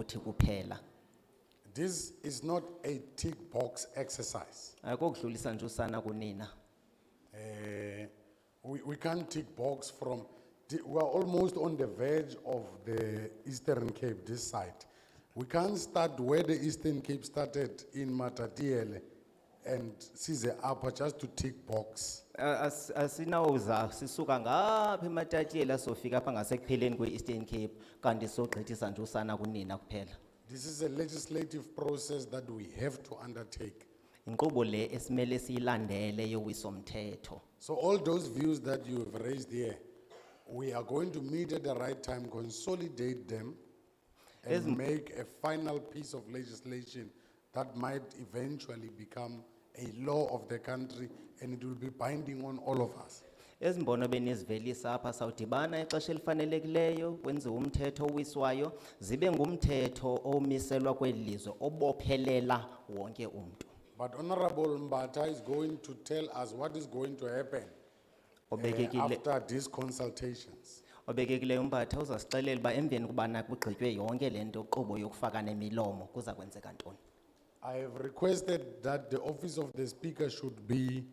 uthi kuphela This is not a tick box exercise. akokudlulisa nje usana kunina Eh, we, we can't tick box from, the- we are almost on the verge of the Eastern Cape, this side. We can't start where the Eastern Cape started in Matatiele and Size Upper just to tick box. A- as- asinawuza sisuka ngapha ematatiyela sofika apha ngasekupheleni kwe-eastern cape kanti sogqithisa nje usana kunina kuphela This is a legislative process that we have to undertake. inkqubo le esimele siyilandele yowiso-mthetho So all those views that you have raised here, we are going to meet at the right time, consolidate them and make a final piece of legislation that might eventually become a law of the country and it will be binding on all of us. ezi mbono benizivelisa apha sawudibana ixesha elifanelekileyo kwenziwe umthetho owiswayo zibe ngumthetho omiselwa kweli lizwe obophelela wonke umntu But Honorable Mbata is going to tell us what is going to happen eh, obekekile after these consultations. obekekileyo umphatha uzasixelela uba emveni kubana kugqitywe yonke le nto nkqubo yokufaka nemilomo kuza kwenzeka ntoni I have requested that the office of the speaker should be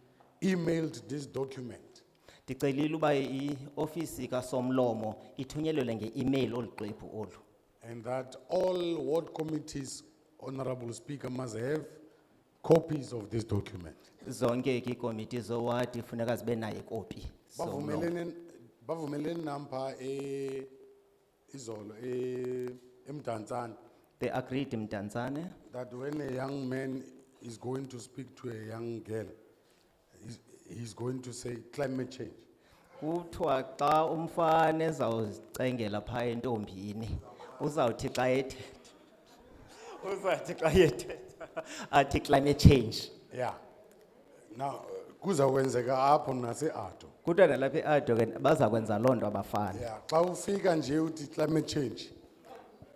emailed this document. ndicelile uba iofisi kasomlomo ithunyelelwe nge-imeyili olu xwebhu olu And that all ward committees, Honorable Speaker, must have copies of this document. zonke ke iikomiti zowadi funeka zibe nayo ikopi somlomo. Bavumelene, bavumelene nampa eh, izolo, eh, eMdantsane, they agreed mdantsane that when a young man is going to speak to a young girl, he's, he's going to say climate change. kuthiwa xa umfana ezawuzicengela phaa entombini uzawuthi xa ethetha uzawuthi xa ethetha athi climate change Yeah. Now, kuzawenzeka apho nase-Ado. kuthiwa nalapha eado ke baza kwenza loo nto abafana Yeah, xa ufika nje uthi climate change.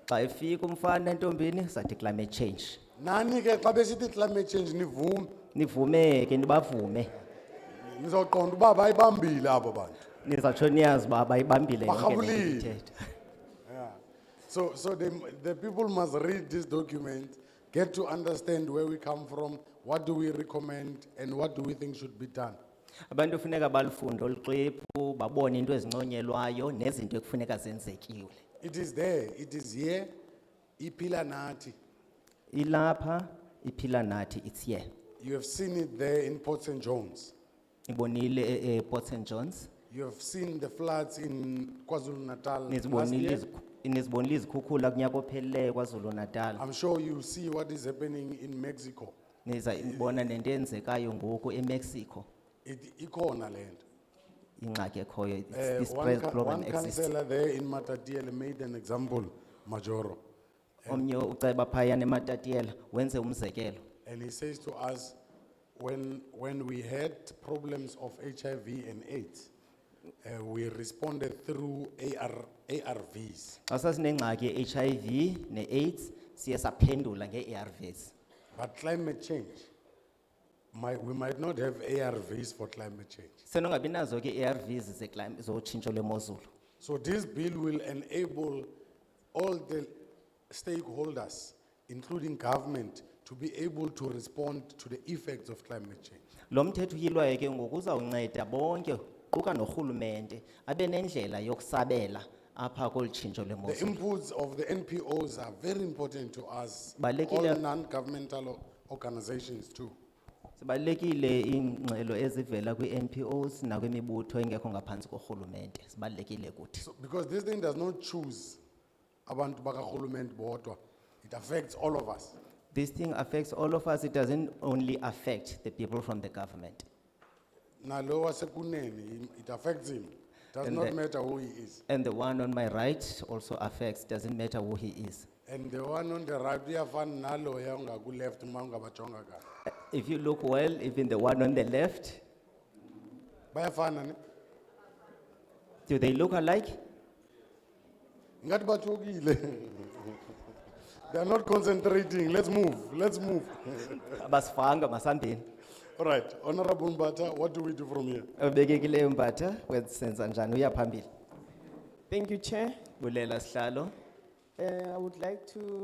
xa efika umfana entombini sathi climate change Nani ke xa besithi climate change nivume, nivumeke nibavume Nizoqonda uba bayibambile abo bantu. nizatsho niyazi uba bayibambile yonke le nto Barhabulile. ithetha So, so the, the people must read this document, get to understand where we come from, what do we recommend, and what do we think should be done. abantu funeka balufunde olu xwebhu babone into ezinconyelwayo nezinto ekufuneka zenzekiwe It is there, it is here, ipila nati. ilapha iphila nathi it's here You have seen it there in Port St. John's. ibonile eport st e-, johns You have seen the floods in KwaZulu Natal. last nizibonile year. izikhu- nizibonile izikhukhula kunyaka opheleleyo kwazulu natal I'm sure you see what is happening in Mexico. nizayibona nento eyenzekayo ngoku emexico It, ikona lento. ingxaki ekhoyo It's- Eh, this one stress ca- program One exists councillor there in Matatiele made an example, Majoro, omnye uceba phayana ematatiyela wenze umzekelo and he says to us, when, when we had problems of HIV and AIDS, uh, we responded through AR, ARVs. xa sasinengxaki ye-hiv ne-aids siye saphendula ngee-arvs But climate change, might, we might not have ARVs for climate change. senongabi nazo ke E i-arvs zotshintsho lwemozulu So this bill will enable all the stakeholders, including government, to be able to respond to the effects of climate change. lo mthetho uyilwayo ke ngoku uzawunceda bonke quka norhulumente abe nendlela yokusabela apha kolu tshintsho The lwemozulu inputs of the NPOs are very important to us, all Balekile- non-governmental o- organizations too. zibalulekile iingxelo ezivela kwii-npos nakwimibutho engekho ngaphantsi korhulumente zibalulekile kuthi So- Because this thing does not choose abantu bakarhulumente bodwa, it affects all of us. this thing affects all of us it doesn't only affect the people from the government Nalo wasekunene, it affects him, does And not the- matter who he is. and the one on my right also affects doesn't matter who he is And the one on the right, uyafana naloya ongakuleft uma ungabajonga kahle. Uh, if you look well even the one on the left Bayafana ne? do they look alike Ngathi bathukile. They are not concentrating, let's move, let's move. abasifanga masambini All right, Honorable Mbata, what do we do from here? obekekileyo mpatha wenzenza njani uya phambili Thank you, Chair. bulela sihlalo Uh, I would like to